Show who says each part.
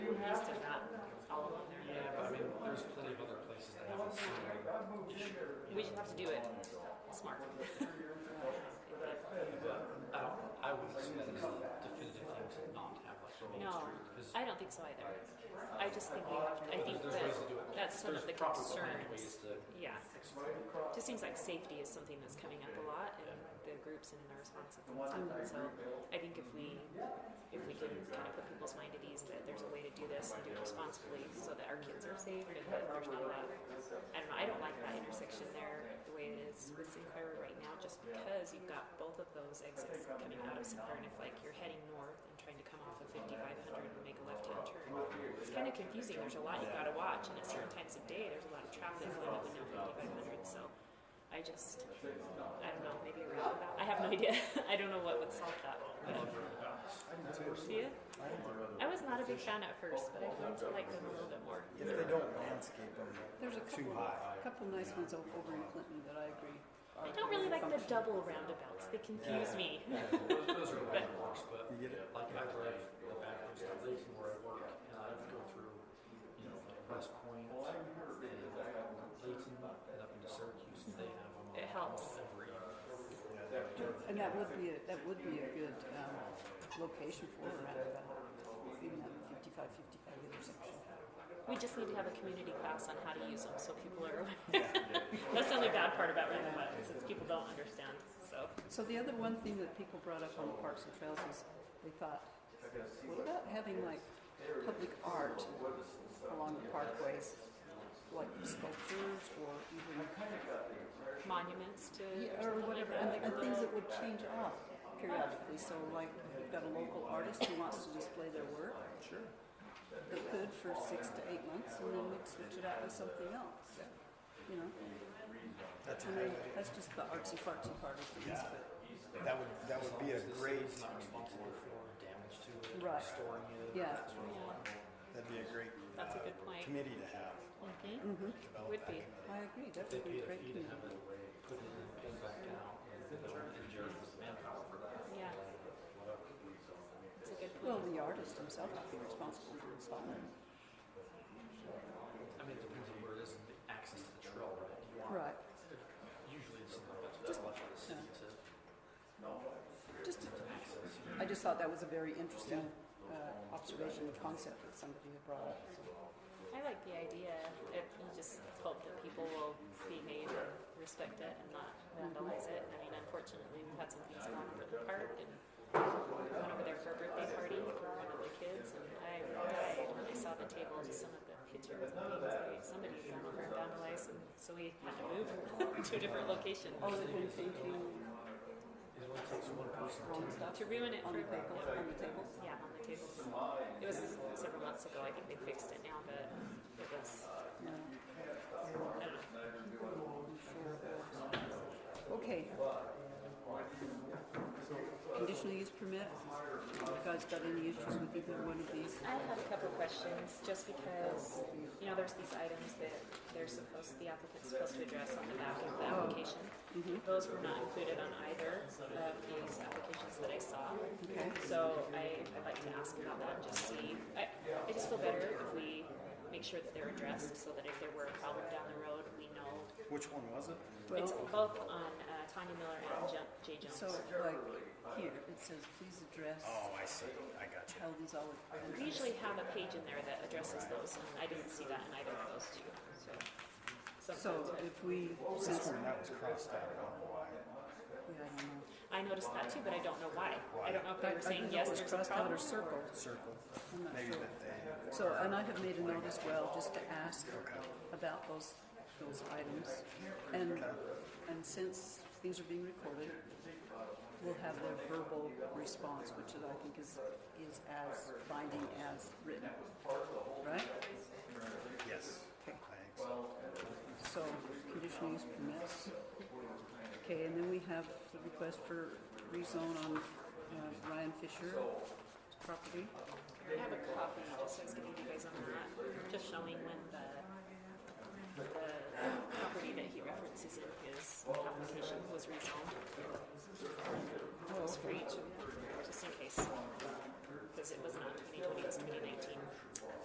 Speaker 1: we just have to do it smart.
Speaker 2: I don't, I would assume that is the definitive thing to not have like a main
Speaker 1: No,
Speaker 2: street. 'cause
Speaker 1: I don't think so either. I just think we have. To, I think
Speaker 2: there's
Speaker 1: that
Speaker 2: ways to do it.
Speaker 1: that's some
Speaker 2: There's
Speaker 1: of the
Speaker 2: proper planning ways
Speaker 1: concerns.
Speaker 2: to,
Speaker 1: Yeah, just seems like safety is something that's coming up a lot in the groups and in the responses and stuff. And so I think if we if we can kind of put people's mind at ease that there's a way to do this and do it responsibly so that our kids are safe and that there's not a lot I don't know, I don't like that intersection there the way it is with Sinclair right now just because you've got both of those exits coming out of Sinclair and if like you're heading north and trying to come off of 5500 and make a left hand turn it's kind of confusing there's a lot you've got to watch and at certain times of day there's a lot of traffic going up and down 5500 so I just I don't know maybe around about I have no idea I don't know what would solve that
Speaker 2: I love the roundabouts.
Speaker 1: yeah. I was not a big fan at first, but I've learned to like them a little bit more.
Speaker 3: If they don't landscape them
Speaker 4: There's a
Speaker 3: too
Speaker 4: couple,
Speaker 3: high.
Speaker 4: a couple nice ones o- over in Clinton that I agree.
Speaker 1: I
Speaker 4: are
Speaker 1: don't really like the
Speaker 4: functional.
Speaker 1: double roundabouts. They confuse me.
Speaker 2: Those, those are the bad works, but
Speaker 3: You get it?
Speaker 2: like I drive the back roads to Layton where I work and I would go through, you know, like West Point and Layton and up into Syracuse and they have them on
Speaker 1: It helps.
Speaker 2: almost every.
Speaker 4: And that would be, a- that would be a good, um, location for a roundabout, even that fifty-five, fifty-five intersection.
Speaker 1: We just need to have a community class on how to use them so people are aware. That's the only bad part about roundabouts is people don't understand. So
Speaker 4: So the other one thing that people brought up on the Parks and Trails is they thought, what about having like public art along the parkways? Like sculptures or even,
Speaker 1: monuments to
Speaker 4: yeah, or whatever, and, and things that would change up periodically. So like if you've got a local artist who wants to display their work. Sure. They could for six to eight months and then we'd switch it out with something else, you know?
Speaker 3: That's a
Speaker 4: I
Speaker 3: great
Speaker 4: mean,
Speaker 3: idea.
Speaker 4: that's just the artsy fartsy part of things,
Speaker 3: Yeah.
Speaker 4: but.
Speaker 3: That would, that would be a great,
Speaker 2: It's not responsible for damage to it, or
Speaker 4: Right.
Speaker 2: storing it.
Speaker 4: Yeah.
Speaker 2: that sort of thing.
Speaker 3: that'd be a great
Speaker 1: That's a
Speaker 3: uh,
Speaker 1: good point.
Speaker 3: committee to have.
Speaker 1: Mhm.
Speaker 4: Mhm.
Speaker 3: develop
Speaker 1: Would
Speaker 3: that
Speaker 1: be.
Speaker 3: committee.
Speaker 4: I agree, that
Speaker 2: They
Speaker 4: would be
Speaker 2: paid
Speaker 4: a
Speaker 2: a
Speaker 4: great
Speaker 2: fee to
Speaker 4: community.
Speaker 2: have it put in and paid back down and the and Jared was the manpower for that.
Speaker 1: Yeah. It's a good
Speaker 4: Well,
Speaker 1: point.
Speaker 4: the artist himself would be responsible for installing.
Speaker 2: I mean, it depends on where it is and the access to the trail, right? Do you want-
Speaker 4: Right,
Speaker 2: Usually it's something that's just left for the city to
Speaker 4: just,
Speaker 2: access.
Speaker 4: I just thought that was a very interesting, uh, observation and concept that somebody had brought up, so.
Speaker 1: I like the idea. If you just hope that people will behave and respect it and not vandalize it. I mean, unfortunately, we've had some things come up at the park and we went over there for a birthday party for one of the kids, and I died when I saw the table. Just some of the pictures and things. Like, somebody went over and vandalized, and so we had to move to a different location
Speaker 4: Oh, they've been painting
Speaker 2: It only takes one person to
Speaker 4: wrong stuff
Speaker 1: to ruin it
Speaker 4: on
Speaker 1: for
Speaker 4: the
Speaker 1: people.
Speaker 4: bagels, on the tables?
Speaker 1: Yeah, on the tables. It was several months ago. I think they fixed it now, but it was.
Speaker 4: No.
Speaker 1: I don't know.
Speaker 4: Okay. Conditional use permit, you guys got any issues with either one of these?
Speaker 1: I have a couple of questions, just because, you know, there's these items that they're supposed, the applicant's supposed to address on the back of the application.
Speaker 4: Mm-hmm.
Speaker 1: Those were not included on either of these applications that I saw. So I, I'd like to ask about that, and just see, I, I just feel better if we make sure that they're addressed, so that if there were a problem down the road, we know.
Speaker 3: Which one was it?
Speaker 1: It's
Speaker 4: Well,
Speaker 1: both on uh, Tanya Miller and Jo- Jay Jones.
Speaker 4: so like here, it says please address
Speaker 3: Oh, I see. I got you.
Speaker 4: how these all.
Speaker 1: We usually have a page in there that addresses those, and I didn't see that in either of those two, so.
Speaker 4: So
Speaker 1: sometimes I-
Speaker 4: if we,
Speaker 3: This
Speaker 4: since,
Speaker 3: one, that was crossed out. I don't know why.
Speaker 4: yeah, I don't know.
Speaker 1: I noticed that too, but I don't know why. I don't know if they were
Speaker 4: I
Speaker 1: saying
Speaker 4: think it
Speaker 1: yes,
Speaker 4: was
Speaker 1: there's a
Speaker 4: crossed out
Speaker 1: problem.
Speaker 4: or circled.
Speaker 3: Circle.
Speaker 4: I'm not
Speaker 3: Maybe
Speaker 4: sure.
Speaker 3: that they,
Speaker 4: So, and I have made a note as well, just to ask about those, those items. And, and since things are being recorded, we'll have their verbal response, which is, I think is, is as binding as written. Right?
Speaker 3: yes. Thanks.
Speaker 4: So, conditional use permits. Okay, and then we have the request for rezone on uh, Ryan Fisher property.
Speaker 1: I have a copy, just I was giving you guys on that, just showing when the, the property that he references in his application was rezoned. Just for each, just in case, because it was not twenty twenty, it was twenty nineteen.